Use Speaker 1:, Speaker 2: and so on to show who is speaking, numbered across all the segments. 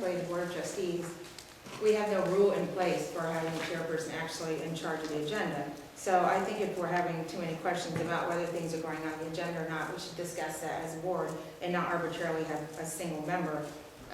Speaker 1: by the board of trustees, we have no rule in place for having the chairperson actually in charge of the agenda. So I think if we're having too many questions about whether things are going on the agenda or not, we should discuss that as a board and not arbitrarily have a single member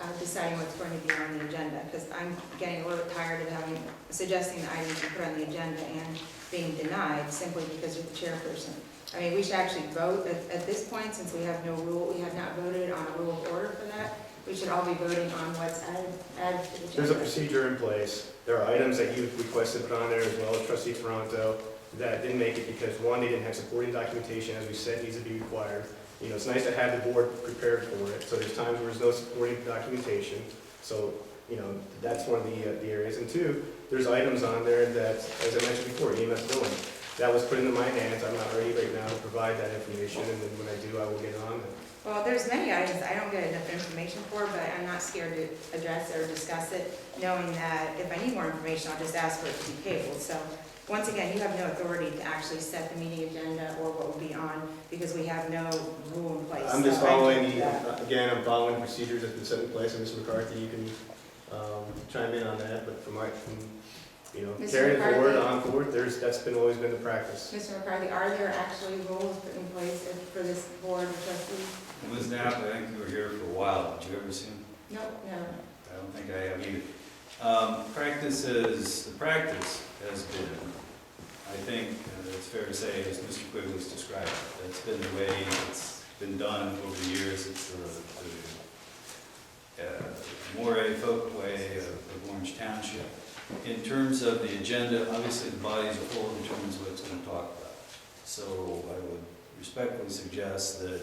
Speaker 1: uh, deciding what's going to be on the agenda. Because I'm getting a little tired of having, suggesting the items to put on the agenda and being denied simply because you're the chairperson. I mean, we should actually vote at, at this point, since we have no rule, we have not voted on a rule of order for that. We should all be voting on what's added, added to the
Speaker 2: There's a
Speaker 1: agenda.
Speaker 2: procedure in place. There are items that you requested put on there as well as trustee Toronto that didn't make it because, one, they didn't have supporting documentation, as we said, needs to be required. You know, it's nice to have the board prepared for it, so there's times where there's no supporting documentation. So, you know, that's one of the, uh, the areas. And two, there's items on there that, as I mentioned before, EMS billing. That was put into my hands. I'm not ready right now to provide that information, and then when I do, I will get on it.
Speaker 1: Well, there's many items I don't get enough information for, but I'm not scared to address or discuss it, knowing that if I need more information, I'll just ask for it to be tabled. So, once again, you have no authority to actually set the meeting agenda or what will be on, because we have no rule in place.
Speaker 2: I'm just
Speaker 1: So I can't
Speaker 2: following,
Speaker 1: do
Speaker 2: the
Speaker 1: that.
Speaker 2: again, I'm following procedures that's been set in place, and Mr. McCarthy, you can um, chime in on that, but from my, from, you know,
Speaker 1: Mr.
Speaker 2: carrying forward,
Speaker 1: McCarthy?
Speaker 2: on forward, there's, that's been, always been the practice.
Speaker 1: Mr. McCarthy, are there actually rules put in place if- for this board of trustees?
Speaker 3: Ms. Knapp, I think you were here for a while. Did you ever see him?
Speaker 1: No, no.
Speaker 3: I don't think I have either. Um, Practice is, the practice has been, I think uh, it's fair to say, as Mr. Quigley's described, it, that's been the way it's been done over the years. It's the the, uh, more a folk way of of Orange Township. In terms of the agenda, obviously the body's full in terms of what it's going to talk about. So I would respectfully suggest that,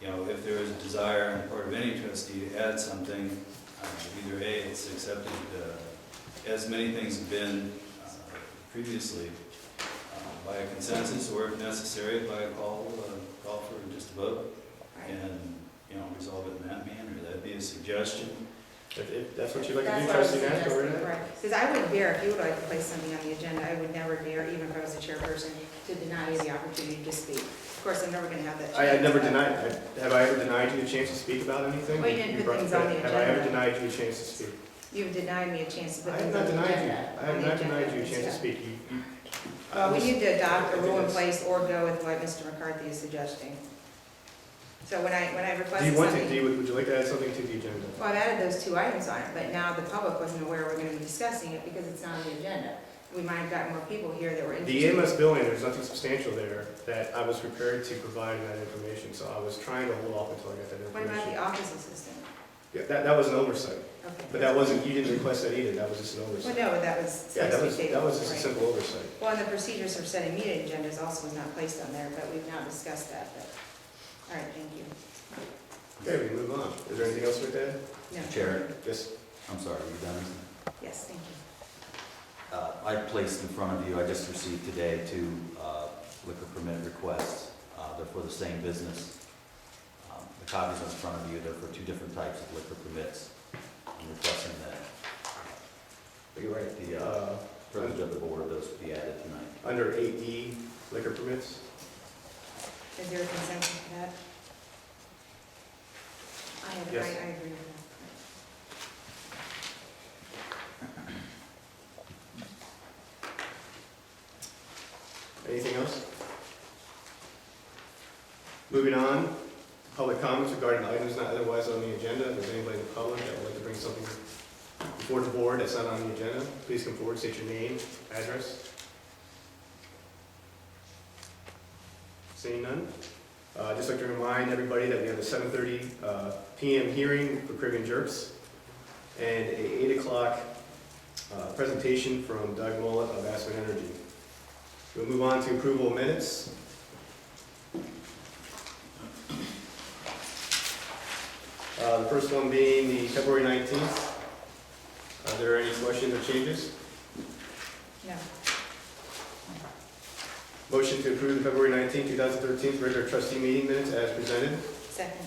Speaker 3: you know, if there is a desire on the part of any trustee to add something, uh, either A, it's accepted, uh, as many things have been uh, previously, uh, by a consensus, or if necessary, by a call, uh, call for just a vote, and, you know, resolve it in that manner. That'd be a suggestion.
Speaker 2: If, if that's what you'd like to
Speaker 1: That's
Speaker 2: do,
Speaker 1: what I was
Speaker 2: trustee Nash, go right
Speaker 1: suggesting,
Speaker 2: ahead.
Speaker 1: right. Because I would dare, if you would like to place something on the agenda, I would never dare, even if I was the chairperson, to deny you the opportunity to speak. Of course, I'm never going to have that.
Speaker 2: I had
Speaker 1: chance.
Speaker 2: never denied, I- have I ever denied you a chance to speak about anything?
Speaker 1: Well, you didn't
Speaker 2: You
Speaker 1: put
Speaker 2: brought-
Speaker 1: things on the
Speaker 2: Have I ever
Speaker 1: agenda.
Speaker 2: denied you a chance to speak?
Speaker 1: You've denied me a chance to
Speaker 2: I
Speaker 1: put
Speaker 2: have
Speaker 1: things on
Speaker 2: not
Speaker 1: the agenda.
Speaker 2: denied you, I
Speaker 1: on
Speaker 2: have
Speaker 1: the
Speaker 2: not
Speaker 1: agenda
Speaker 2: denied you a
Speaker 1: and
Speaker 2: chance to
Speaker 1: stuff.
Speaker 2: speak. You- you-
Speaker 1: Well, we need to adopt a rule in
Speaker 2: Yes.
Speaker 1: place or go with what Mr. McCarthy is suggesting. So when I, when I
Speaker 2: Do you
Speaker 1: requested
Speaker 2: want to, do
Speaker 1: something,
Speaker 2: you, would would you like to add something to the agenda?
Speaker 1: well, I've added those two items on it, but now the public wasn't aware we're going to be discussing it because it's not on the agenda. We might have gotten more people here that were
Speaker 2: The
Speaker 1: interested.
Speaker 2: EMS billing, there's nothing substantial there that I was prepared to provide that information, so I was trying to hold off until I got that
Speaker 1: What about
Speaker 2: information.
Speaker 1: the office assistant?
Speaker 2: Yeah, That, that was an oversight,
Speaker 1: Okay.
Speaker 2: but that wasn't, you didn't request that either, that was just an
Speaker 1: Well,
Speaker 2: oversight.
Speaker 1: no, but that was
Speaker 2: Yeah, that
Speaker 1: supposed
Speaker 2: was,
Speaker 1: to be
Speaker 2: that
Speaker 1: tabled,
Speaker 2: was just a
Speaker 1: right?
Speaker 2: simple oversight.
Speaker 1: Well, and the procedures for setting meeting agendas also was not placed on there, but we've now discussed that, but, all right, thank you.
Speaker 2: Okay, we move on. Is there anything else with that?
Speaker 1: No.
Speaker 4: Chair.
Speaker 2: Yes,
Speaker 4: I'm sorry, are you done?
Speaker 1: Yes, thank you.
Speaker 4: Uh, I placed in front of you, I just received today two uh, liquor permit requests. Uh, They're for the same business. Um, The copies in front of you, they're for two different types of liquor permits. I'm requesting that. Are you right? The uh,
Speaker 2: uh,
Speaker 4: verbiage of the board, those be added tonight.
Speaker 2: under eight E liquor permits?
Speaker 1: Is there a consensus for that? I have, I,
Speaker 2: Yes.
Speaker 1: I agree with
Speaker 2: Anything else? Moving on, public comments regarding items not otherwise on the agenda. If there's anybody in the public that would like to bring something before the board that's not on the agenda, please come forward, state your name, address. Seeing none? Uh, I'd just like to remind everybody that we have a 7:30 uh, PM hearing for Caribbean Jerks and a 8 o'clock uh, presentation from Doug Mullet of Aspen Energy. We'll move on to approval of minutes. Uh, The first one being the February 19th. Are there any questions or changes?
Speaker 1: that. No,
Speaker 2: Motion to approve the February 19th, 2013 regular trustee meeting minutes as presented.
Speaker 1: second,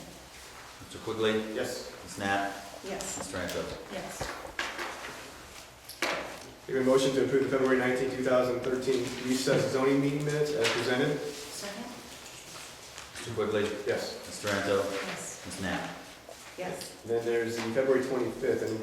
Speaker 4: Mr. Quigley,
Speaker 2: Yes.
Speaker 4: Ms. Knapp,
Speaker 1: yes,
Speaker 4: Ms. Franco.
Speaker 1: yes,
Speaker 2: Give a motion to approve the February 19th, 2013 recess zoning meeting minutes as presented.
Speaker 1: second,
Speaker 4: Mr. Quigley,
Speaker 2: Yes.
Speaker 4: Ms. Franco,
Speaker 1: yes,
Speaker 4: Ms. Knapp.
Speaker 1: yes.
Speaker 2: Then there's the February twenty-fifth, and